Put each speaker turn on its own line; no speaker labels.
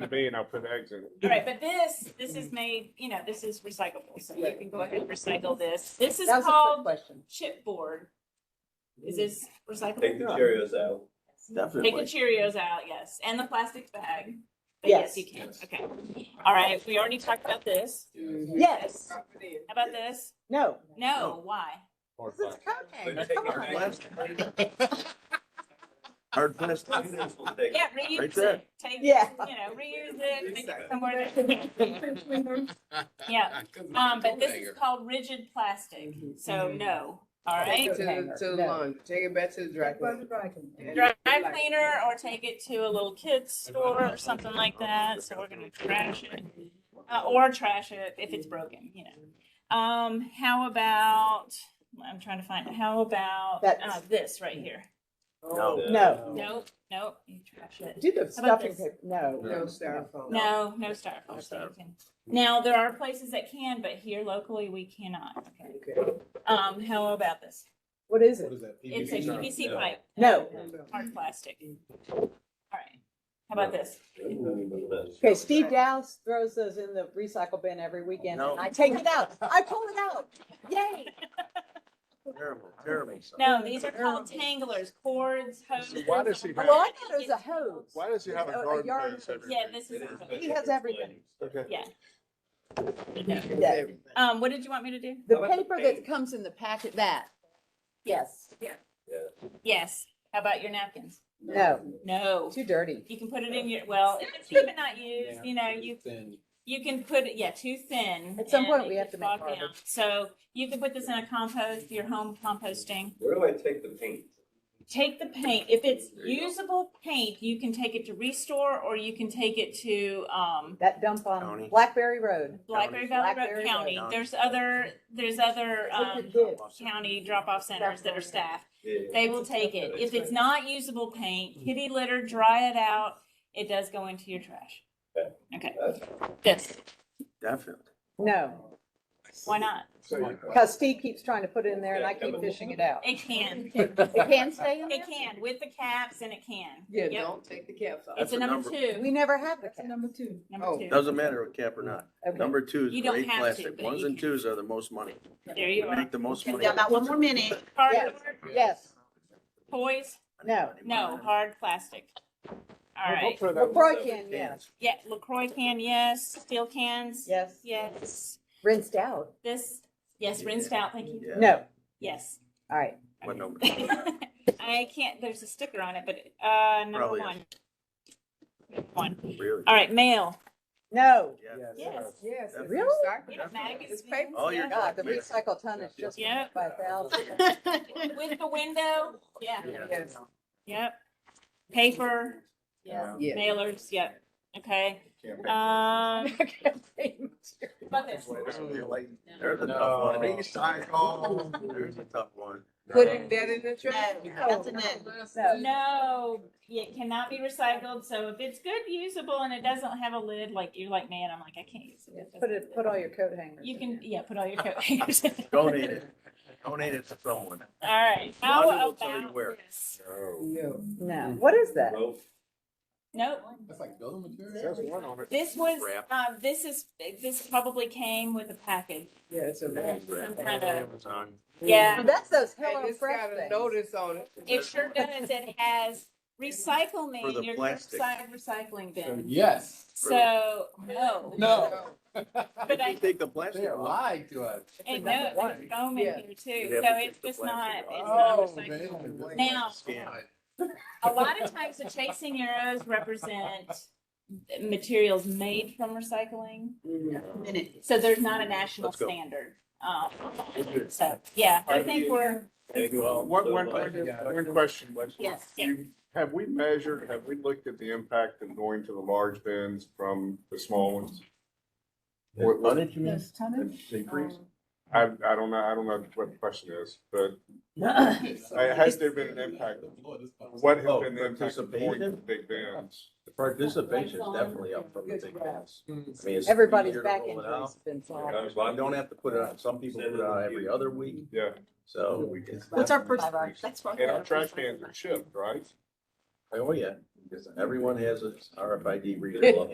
to me and I'll put eggs in
All
it.
right, but this, this is made, you know, this is recyclable, so you can go ahead and recycle this. This is
That was a trick
called
question.
chipboard. Is this
Take the
recyclable?
Cheerios out.
Take the
Definitely.
Cheerios out, yes, and the plastic bag. But yes,
Yes.
you can, okay. All right, we already talked about this.
Yes,
How about this?
no.
No, why?
Or
This is
plastic.
cocaine,
But take
come
it
on.
back.
Hard pass.
Cheerios will take
Yeah,
it.
reuse
Right there.
it. Take, you
Yeah.
know, reuse it, take it somewhere. that- Yeah,
Couldn't
um,
make
but
a
this
banger.
is called rigid plastic, so
Mm-hmm.
no, all right?
Take it to, to the
No.
lawn, take it back to the dry cleaner.
dry cleaner or take it to a little kid's store or something like that. So we're gonna trash it. Uh, or trash it if it's broken, you know. Um, how about, I'm trying to find, how about, uh,
That's-
this right here?
No.
No.
Nope, nope, you trash it.
Do the
about
stuffing
this?
paper, no.
No styrofoam.
No, no styrofoam. so you can- Now, there are places that can, but here locally, we cannot. Okay.
Okay.
Um, how about this?
What is it?
It's a PVC pipe,
No.
hard plastic. All right, how about this?
Okay, Steve Dowse throws those in the recycle bin every weekend and
No.
I take it out. I pull it out. Yay.
Terrible, terrible.
No, these are called tanglers, cords, hoses.
why does he
Well,
have-
I thought it was a hose.
Why does he have a
A- a
garden
yard
hose
hose.
everywhere?
Yeah, this is.
It is, but
He
it's
has everything.
Okay.
Yeah.
Yeah.
Um, what did you want me to do?
The paper that comes in the packet, that. Yes.
Yes. How about your napkins?
No,
No.
too dirty.
You can put it in your, well, if it's even not used, you know, you,
Then
you can put it, yeah, too thin.
At some
and
point,
it
we have
could
to make
bog down.
garbage.
So you can put this in a compost, your home composting.
Where do I take the paint?
Take the paint, if it's
There you go.
usable paint, you can take it to Restore or you can take it to, um,
That dump
County.
on Blackberry Road.
Blackberry Valley Road
Blackberry
County.
Road.
There's other, there's other,
Look
um,
at this.
county drop-off centers that are staffed.
Yeah.
They will take it. If it's not usable paint, kitty litter, dry it out. It does go into your trash. Okay, this,
Definitely.
No,
why not?
So you-
because Steve keeps trying to put it in there and I keep fishing it out.
It can,
It can stay in
it
there?
can, with the caps and it can.
Yeah,
Yep.
don't take the caps off.
It's a number
We
two,
never have the cap.
number
Oh.
two.
Doesn't matter with cap or not.
Okay.
Number twos
You
are
don't
eight
have to,
plastic.
but
Ones
you
and
can.
twos are the most money.
There you are.
Make the most money.
one more minute.
Hard
Yes,
toys,
no.
no, hard plastic. All
Well,
right,
Don't throw that one.
LaCroix can, yes,
yeah, LaCroix can, yes, steel cans,
yes.
yes,
Rinsed out.
this, yes, rinsed out, thank you,
Yeah.
No,
yes.
all right.
What number?
I can't, there's a sticker on it, but, uh, number
Probably
one. One.
Really?
All right, mail.
No,
Yeah.
Yes.
Yes.
That's-
Really?
Yeah, magazines.
It's paper.
All your-
God, the recycle tonnage just
Yeah.
went by thousand.
With the window, yeah,
Yes.
yep. Paper,
Yeah.
Yes.
mailers, yep, okay.
Can't make-
Um,
Yes.
about this,
There's a tough
No.
one. There's a tough one.
Putting that in the trash.
No, that's a
no.
no, it cannot be recycled, so if it's good, usable, and it doesn't have a lid, like, you're like, man, I'm like, I can't use it.
Put it, put all your coat hangers.
You
in
can,
there.
yeah, put all your coat hangers in.
Donate it. Donate it to someone.
All right,
Rhonda
how
will tell you
about
where.
this?
No.
No, what is that?
Rope.
Nope,
That's like building material.
There's one on it.
this was,
Wrap.
uh, this is, this probably came with a package.
Yeah, it's a wrap.
Some kind of,
Amazon.
yeah,
Well, That's those
And
Hello
it's
Fresh
got a
things.
notice on it.
it sure does. It has recycle
For
me
the
in your
plastic.
curbside recycling bin.
Yes.
So, no.
No.
But I,
You take the plastic
They
off.
lied to us.
and no, there's foam in
Yeah.
here
You'd
too,
have
so
to
it's
get the
just not,
plastic
it's not
Oh,
recycled.
man.
Now-
Scan.
A lot of times the chasing arrows represent materials made from recycling. So there's not a national
Let's go.
standard. Um, so, yeah, I think we're,
Thank you all
One,
so
one,
much.
one one question.
yes, yeah.
You- Have we measured, have we looked at the impact of going to the large bins from the small ones? What, what
did you mean?
increase?
Um,
I, I don't know, I don't know what the question is, but has there been an impact? what has
Oh,
been the impact of going to the big bins?
The participation is definitely up from the big ones. I mean, it's
Everybody's
easier to
back
roll it
injuries
out.
have been solved.
Yeah.
You don't have to put it on, some people put it on every other week,
Yeah,
so.
What's our first-
and our trash cans are shipped, right?
Oh, yeah, everyone has a RFID reader.